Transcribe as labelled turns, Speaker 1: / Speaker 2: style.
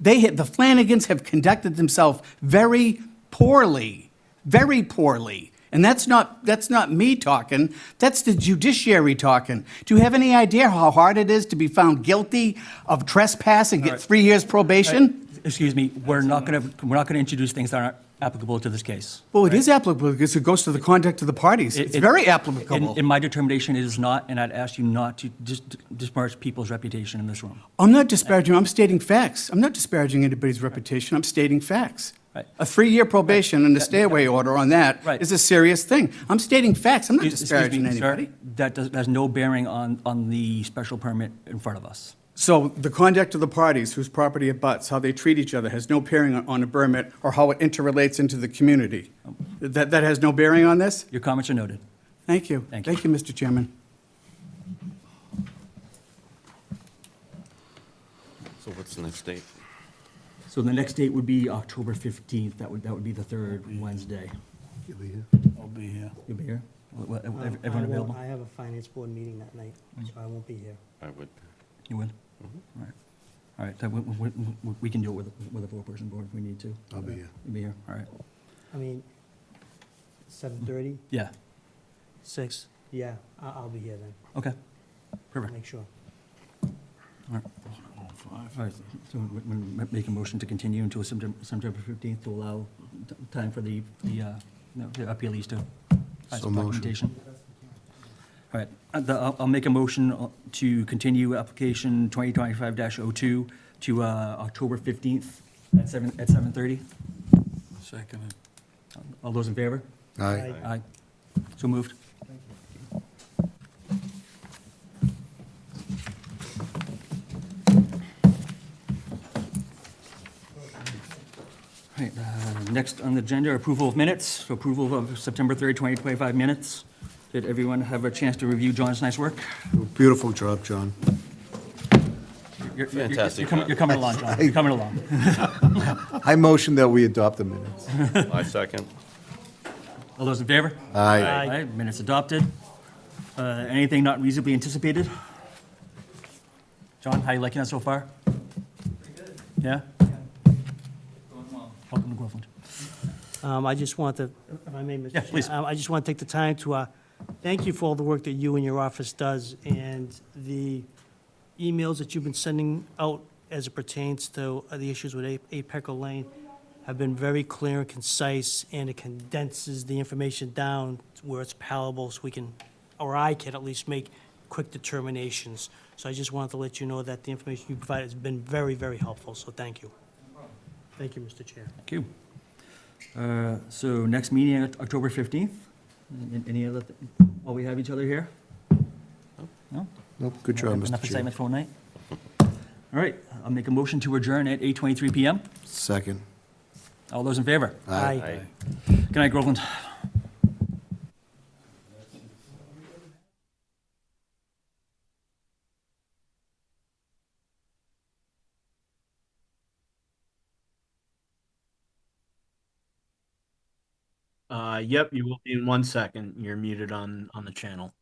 Speaker 1: They have, the Flanagans have conducted themselves very poorly, very poorly. And that's not, that's not me talking, that's the judiciary talking. Do you have any idea how hard it is to be found guilty of trespass and get three years probation?
Speaker 2: Uh, Excuse me, we're not going to, we're not going to introduce things that aren't applicable to this case.
Speaker 1: Well, it is applicable because it goes to the conduct of the parties. It's
Speaker 2: It-
Speaker 1: very
Speaker 2: in-
Speaker 1: applicable.
Speaker 2: In my determination, it is not, and I'd ask you not to dis- disparage people's reputation in this room.
Speaker 1: I'm not disparaging, I'm stating facts. I'm not disparaging anybody's reputation, I'm stating facts.
Speaker 2: Right.
Speaker 1: A three-year probation and a stay-away order on that
Speaker 2: Right.
Speaker 1: is a serious thing. I'm stating facts, I'm not
Speaker 2: Excuse me,
Speaker 1: disparaging
Speaker 2: sir,
Speaker 1: anybody.
Speaker 2: That does, has no bearing on, on the special permit in front of us.
Speaker 1: So the conduct of the parties whose property it butts, how they treat each other, has no bearing on- on a permit or how it interrelates into the community. That, that has no bearing on this?
Speaker 2: Your comments are noted.
Speaker 1: Thank you.
Speaker 2: Thank you.
Speaker 1: Thank you, Mr. Chairman.
Speaker 3: So what's the next date?
Speaker 2: So the next date would be October 15th, that would, that would be the third Wednesday.
Speaker 4: I'll be here.
Speaker 2: You'll be here? Will- will-
Speaker 5: Um,
Speaker 2: ev-
Speaker 5: I
Speaker 2: Everyone
Speaker 5: won't-
Speaker 2: available? Mm.
Speaker 5: I have a finance board meeting that night, so I won't be here.
Speaker 3: I would,
Speaker 2: You will?
Speaker 4: Mm-hmm.
Speaker 2: All right. All right, so we- we, we- we can do it with, with a four-person board if we need to. Uh,
Speaker 4: I'll be here.
Speaker 2: You'll be here, all right.
Speaker 5: I mean, seven thirty,
Speaker 2: Yeah,
Speaker 4: Six.
Speaker 5: yeah, I, I'll be here then,
Speaker 2: okay.
Speaker 5: I'll
Speaker 2: Perfect.
Speaker 5: make sure.
Speaker 2: All right. All right, so we- we ma- make a motion to continue until Septem- September 15th to allow t- time for the, the, uh, no, the appealees to.
Speaker 4: So motion.
Speaker 2: documentation. All right, uh, the- I'll, I'll make a motion uh, to continue application 2025-02 to uh, October 15th at 7, at 7:30.
Speaker 4: Second.
Speaker 2: All those in favor?
Speaker 4: Aye.
Speaker 5: I-
Speaker 2: Aye. So moved. All right, uh, next on the agenda, approval of minutes, So approval of September 3rd, 2025 minutes. Did everyone have a chance to review John's nice work?
Speaker 4: Beautiful job, John.
Speaker 2: You're- you're- you're-
Speaker 3: Fantastic
Speaker 2: you're coming-
Speaker 3: job.
Speaker 2: You're coming along, John, you're coming along.
Speaker 6: I motion that we adopt the minutes.
Speaker 3: I second.
Speaker 2: All those in favor?
Speaker 6: Aye.
Speaker 2: Aye, minutes adopted. Uh, Anything not reasonably anticipated? John, how you liking that so far? Pretty good. Yeah? Welcome to Groveland.
Speaker 5: Um, I just want to, if I may, Mr.
Speaker 2: Yeah, please.
Speaker 5: Chair, um, I just want to take the time to, uh, thank you for all the work that you and your office does and the emails that you've been sending out as it pertains to uh, the issues with A- Apex Lane have been very clear and concise, and it condenses the information down to where it's palatable, so we can, or I can at least make quick determinations. So I just wanted to let you know that the information you provided has been very, very helpful, so thank you. Thank you, Mr. Chair.
Speaker 2: Thank you. Uh, So next meeting, Oct- October 15th? An- Any other, th- while we have each other here? No?
Speaker 6: Nope, good job,
Speaker 2: Enough
Speaker 6: Mr. Chair.
Speaker 2: excitement for one night? All right, I'll make a motion to adjourn at 8:23 PM.
Speaker 6: Second.
Speaker 2: All those in favor?
Speaker 5: Aye.
Speaker 3: Aye.
Speaker 2: Good night, Groveland.
Speaker 7: Uh, yep, you will be in one second. You're muted on, on the channel.